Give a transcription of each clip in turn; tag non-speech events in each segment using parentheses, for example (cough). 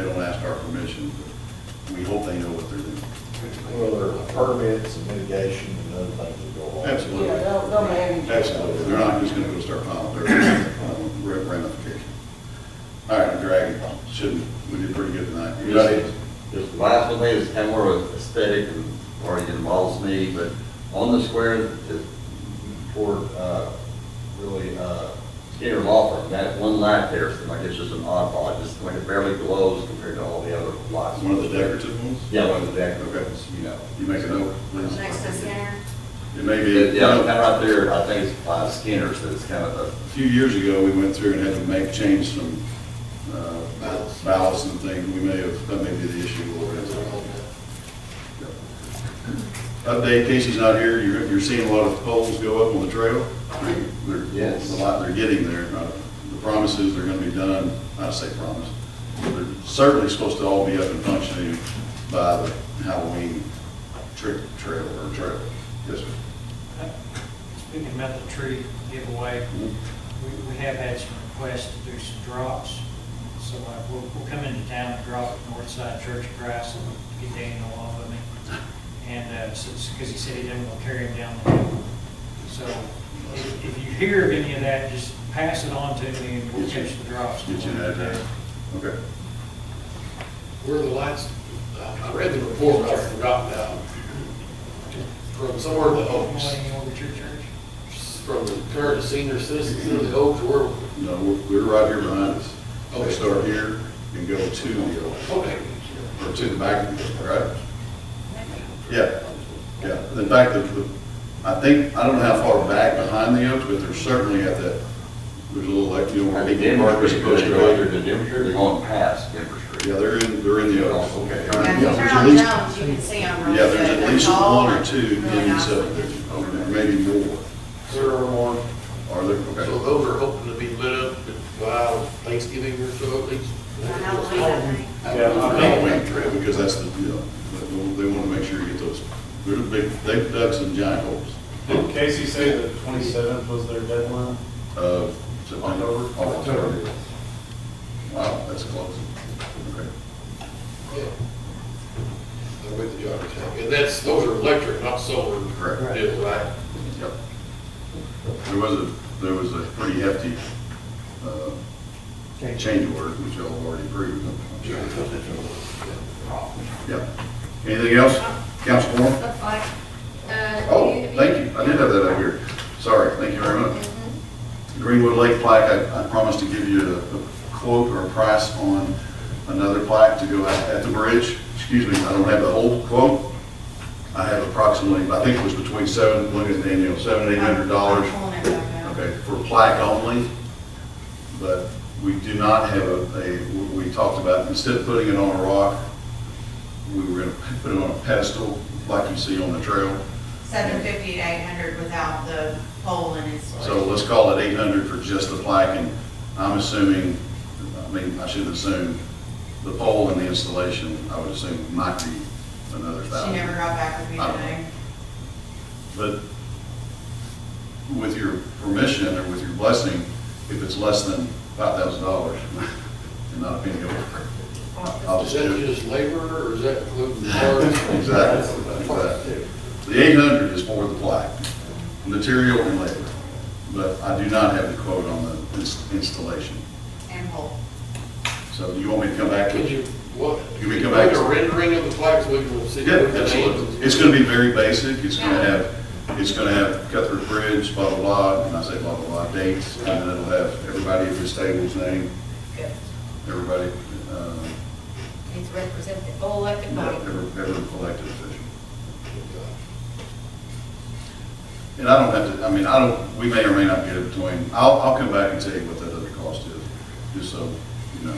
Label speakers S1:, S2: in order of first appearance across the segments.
S1: asked our permission, but we hope they know what they're doing.
S2: Well, there are permits and mitigation and other things that go on.
S1: Absolutely.
S3: Yeah, they'll- they'll manage it.
S1: Absolutely, they're not just gonna go start piling dirt, um, ra- ramifications. All right, I'm dragging, shouldn't, we did pretty good tonight. You got it?
S4: Just just the last one thing is kind of more aesthetic and already involves me, but on the square to- toward, uh, really, uh, Skinner Law Firm, that one light there, seems like it's just an oddball, It just like it barely glows compared to all the other lights.
S1: One of the decorative ones?
S4: Yeah, one of the
S1: Okay.
S4: decorative, you know.
S1: You make a note, please.
S5: Next to Skinner.
S1: It may be,
S4: Yeah, kind of right there, I think it's by Skinner, so it's kind of a
S1: A few years ago, we went through and had to make, change some uh, ballots and things. We may have, that may be the issue. we'll have to- Update, Casey's not here. You're, you're seeing a lot of poles go up on the trail. They're,
S4: Yes.
S1: a lot they're getting there. Uh, The promises, they're gonna be done, I say promise. They're certainly supposed to all be up and functioning by the Halloween trick trail or trail. Yes, sir.
S6: Speaking about the tree giveaway, we, we have had some requests to do some drops. So uh, we'll, we'll come into town and drop at North Side Church of Christ and get Daniel off of me. And, uh, since, because he said he didn't want to carry him down the hill. So if, if you hear of any of that, just pass it on to me and we'll
S1: Get you-
S6: catch the drops.
S1: Get you uh, an address. Okay.
S7: Where are the lights, I I read the report, but I forgot now. From somewhere in the Oaks,
S6: Morning over to your church.
S7: from the current senior citizens in the Oaks, where,
S1: No, we're- we're right here behind us.
S7: Okay.
S1: We start here and go to the,
S7: okay,
S1: or to the back, of the right? Yeah, yeah. In fact, the, the- I think, I don't know how far back behind the oaks, but they're certainly at that, there's a little, like, you know, where
S4: I
S1: we
S4: think Denver,
S1: mark
S4: they're
S1: was supposed to go.
S4: to Denver, they're going past Denver Street.
S1: Yeah, they're in, they're in the oaks.
S4: Oh, Okay.
S1: All right,
S5: Yeah,
S1: yeah,
S5: if you
S1: there's
S5: turn
S1: at
S5: on
S1: least-
S5: Jones, you can see them.
S1: Yeah, there's at least one or two in the subdivision, or maybe more.
S7: there are more.
S1: Are there? Okay.
S7: So those are hoping to be lit up by Thanksgiving or so at least.
S1: Halloween trail, because that's the deal. They- They want to make sure you get those, they're the big, they've dug some giant holes.
S8: Did Casey say the twenty-seventh was their deadline?
S1: of September. Uh, October. Wow, that's close. Okay.
S7: Yeah. I'm with you, Dr. Tack. And that's, those are electric, not solar.
S1: Correct.
S7: deals, right?
S1: Yep. There was a, there was a pretty hefty uh, change order, which y'all have already approved. I'm sure. Yep. Anything else? Council Moore? Oh, thank you. I did have that up here. Sorry. Thank you very much.
S9: Mm-hmm.
S1: Greenwood Lake plaque, I I promised to give you a a quote or a price on another plaque to go at at the bridge. Excuse me, I don't have the whole quote. I have approximately, I think it was between seven, looking at Daniel, seven, eight hundred dollars. Okay, for plaque only, but we do not have a, a- we talked about, instead of putting it on a rock, we were gonna put it on a pedestal, like you see on the trail.
S5: Seven fifty to eight hundred without the pole and installation.
S1: So let's call it eight hundred for just the plaque, and I'm assuming, I mean, I shouldn't assume, the pole and the installation, I would assume might be another
S5: She never
S1: thousand.
S5: got back with me
S1: I don't
S5: today.
S1: But with your permission or with your blessing, if it's less than five thousand dollars, (laughs) and not a penny over, I'll
S7: Is
S1: just
S7: that
S1: do it.
S7: just labor or is that
S1: (laughs)
S7: including parts?
S1: Exactly, exactly. The eight hundred is for the plaque, material and labor, but I do not have the quote on the ins- installation.
S5: And pole.
S1: So you want me to come back?
S7: Could you, what?
S1: You may come back
S7: Make
S1: to-
S7: a rendering of the flags, we can see.
S1: Yeah, absolutely. It's gonna be very basic, it's gonna
S5: Yeah.
S1: have, it's gonna have Cuthbert Bridge, blah, blah, blah, and I say blah, blah, blah, dates, and then it'll have everybody at this table's name, everybody, uh,
S9: It's representative, all elected body.
S1: every, every elected official. And I don't have to, I mean, I don't, we may or may not get it between, I'll, I'll come back and tell you what that other cost is, just so you know.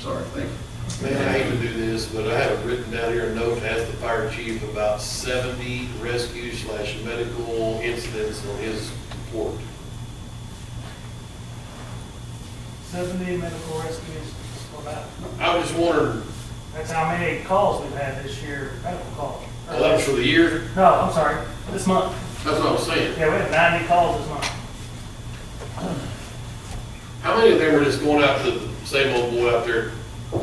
S1: Sorry, thank you.
S7: Man, I hate to do this, but I have written down here a note to ask the fire chief about seventy rescue slash medical incidents on his report.
S10: Seventy medical rescues, about,
S7: I was just wondering,
S10: that's how many calls we've had this year, medical calls.
S7: well, that was for the year,
S10: No, I'm sorry, this month.
S7: that's what I'm saying.
S10: Yeah, we had ninety calls this month.
S7: How many of them were just going out to the same old boy out there